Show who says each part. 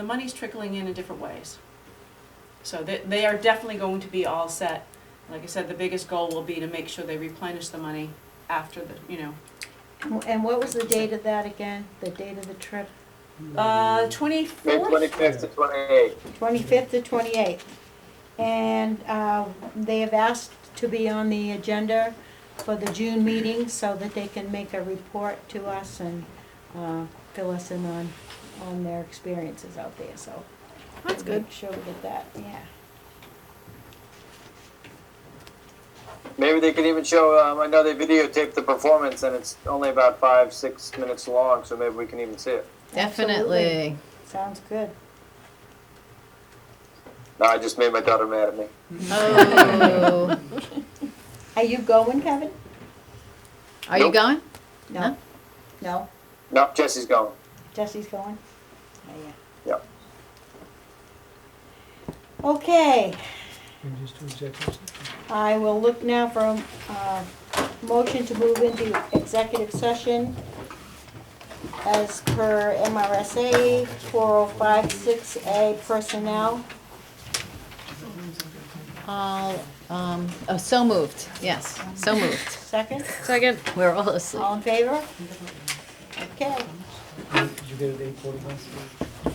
Speaker 1: The money's trickling in in different ways. So they, they are definitely going to be all set. Like I said, the biggest goal will be to make sure they replenish the money after the, you know.
Speaker 2: And what was the date of that again? The date of the trip?
Speaker 1: Uh,
Speaker 3: May
Speaker 1: twenty-fourth?
Speaker 3: twenty-fifth to twenty-eighth.
Speaker 2: 25th to 28th. And uh, they have asked to be on the agenda for the June meeting so that they can make a report to us and uh, fill us in on, on their experiences out there, so.
Speaker 4: That's good.
Speaker 2: Make Sure we get that, yeah.
Speaker 3: Maybe they could even show, um, I know they videotaped the performance and it's only about five, six minutes long, so maybe we can even see it.
Speaker 4: Definitely.
Speaker 2: Sounds good.
Speaker 3: No, I just made my daughter mad at me.
Speaker 4: Oh.
Speaker 2: Are you going, Kevin?
Speaker 4: Are you
Speaker 3: Nope.
Speaker 4: going?
Speaker 2: No? No?
Speaker 3: No, Jesse's going.
Speaker 2: Jesse's going? Oh, yeah.
Speaker 3: Yep.
Speaker 2: Okay.
Speaker 5: And just do executive session.
Speaker 2: I will look now for a uh, motion to move into executive session as per MRSA 4056A personnel.
Speaker 4: All, um, oh, so moved. Yes, so moved.
Speaker 2: Second,
Speaker 4: Second. We're all asleep.
Speaker 2: all in favor? Okay,
Speaker 5: Did you get it eight forty-one?